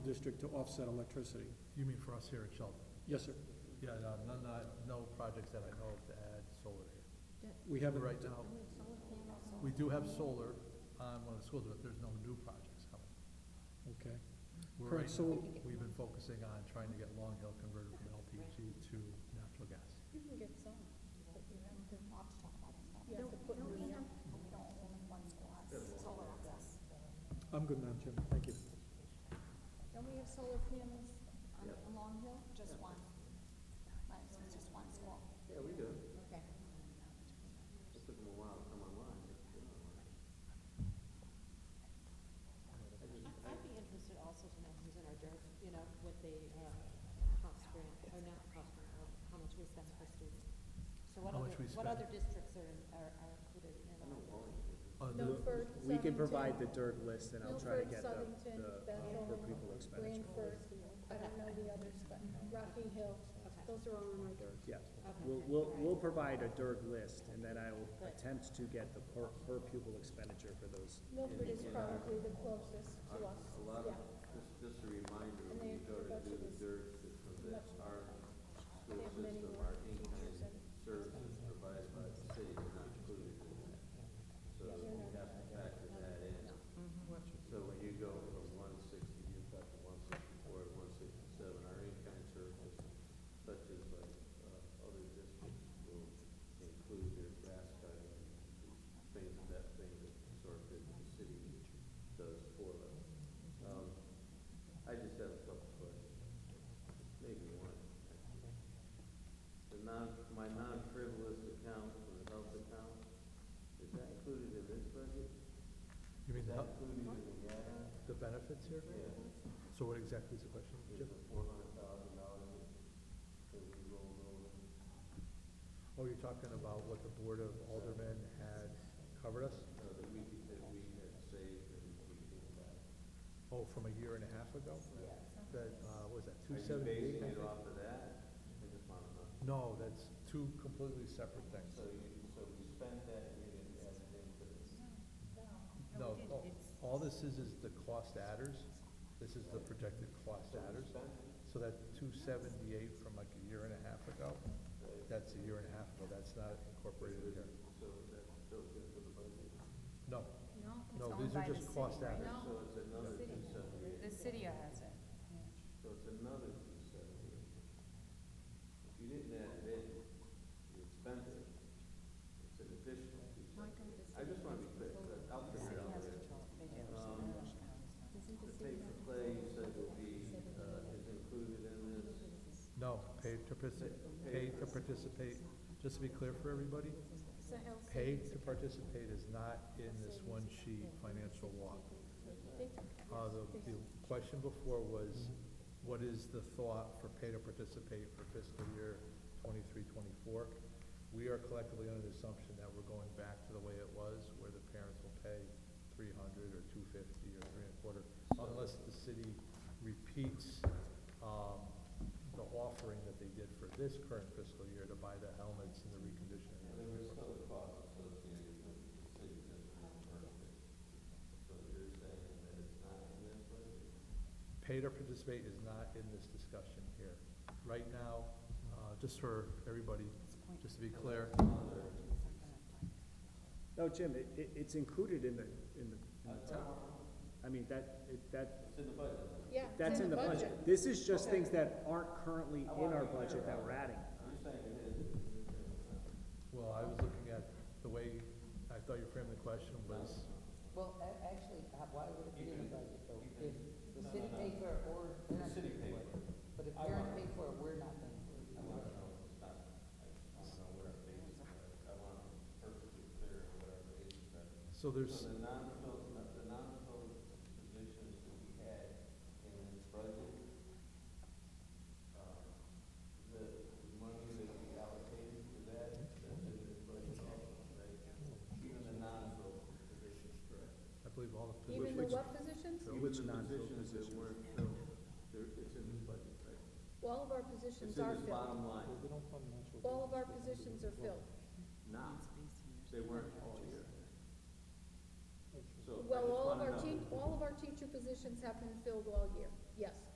district to offset electricity. You mean for us here at Sheldon? Yes, sir. Yeah, no, no, no- no projects that I know of to add solar here. We haven't. Right now, we do have solar on one of the schools, but there's no new projects coming. Okay. We're Correct, right so- now- We've been focusing on trying to get Long Hill converted from LPG to natural gas. You can get some, but you have to. You have to put Don't we in have, I'm good, Madam Chairman. Thank you. don't we have solar panels on on Long Hill? Just one? Right, so it's just one school. Yeah, we do. Okay. It took them a while to come online. I- I'd be interested also to know who's in our dirt, you know, with the uh, cost grant, or not cost grant, or how much we spend per student. So what How other, much we what spend. other districts are, in- are are included in our dirt? Uh, the- Milford, Southington. We can provide the dirt list and I'll try to get the, Milford, Southington, the, Bethel, for people expenditure. Branford, I don't know the others, but Rocky Hill, Okay. those are all on our dirt. Yeah, we'll, we'll, we'll provide a dirt list and then I will attempt to get the per, per pupil expenditure for those. Milford is probably the closest to us, Uh, A lot of, yeah. just, just a reminder, And when you they- go to that's do what the it's- dirt system, that's our school They have many system, more our in-kind teachers and- services provided by the city are not included in that. So we have to factor that in. So when you go from one sixty, you've got the one sixty-four, one sixty-seven, our in-kind services, such as like, uh, other districts will include their grass cutting, things of that thing that sort of that the city does for them. Um, I just have a couple questions, maybe one. The non, my non-frivolous account for the health account, is that included in this budget? You mean Is that the, included in the ad? the benefits here? So what exactly is the question, There's Jim? a four hundred thousand dollars that we rolled over. Oh, you're talking about what the Board of Aldermen had covered us? So that we, could- that we had saved and we gave back. Oh, from a year and a half ago? That, uh, what was that, two Are you seventy-eight? basing it off of that? I just want to No, know. that's two completely separate things. So you, so we spent that, we didn't add it into this. No, all- all this is, is the cost adders. This is the projected cost adders. So that two seventy-eight from like a year and a half ago, that's a year and a half ago, that's not incorporated in here. So that built into the budget. No, No, it's no, owned these by are the just city. cost adders. No, So it's another City. two seventy-eight. the city has it. So it's another two seventy-eight. If you didn't add it in, you spent it, it's an additional two seventy. I just want to be clear, but I'll figure it out later. Um, The pay for play, you said will be, uh, is included in this. No, pay to participate, pay to participate, just to be clear for everybody, pay to participate is not in this one sheet financial law. Uh, the, the question before was, what is the thought for pay to participate for fiscal year twenty-three, twenty-four? We are collectively under the assumption that we're going back to the way it was, where the parents will pay three hundred or two fifty or three and a quarter, unless the city repeats, um, the offering that they did for this current fiscal year to buy the helmets and the reconditioning. And there was still a cost associated with the city doesn't reimburse it. So you're saying that it's not in this budget? Pay to participate is not in this discussion here. Right now, uh, just for everybody, just to be clear, No, Jim, it, it, it's included in the, in the, in Uh, the top. I mean, that, it, that, It's in the budget. Yeah, that's in the budget. This is just things that aren't currently in our budget that we're adding. You're saying it is, it's in there, but it's not. well, I was looking at the way, I thought you framed the question was, Well, a- actually, uh, why would it be in the budget though? If the city paid for it or parents paid for it. But if parents paid for it, we're not paying for it. so there's, So the non-filled, the non-filled positions that we had in this budget, uh, the money that we allocated for that, that's in this budget also, right? Even the non-filled positions, correct? I believe all the. Even the what positions? Which non-filled Positions that weren't filled, they're, it's in this budget, right? All of our It's positions in are this filled. bottom line, All of our positions are filled. now, they weren't all year. So I Well, just all of wanna our know. teach, all of our teacher positions have been filled all year. Yes.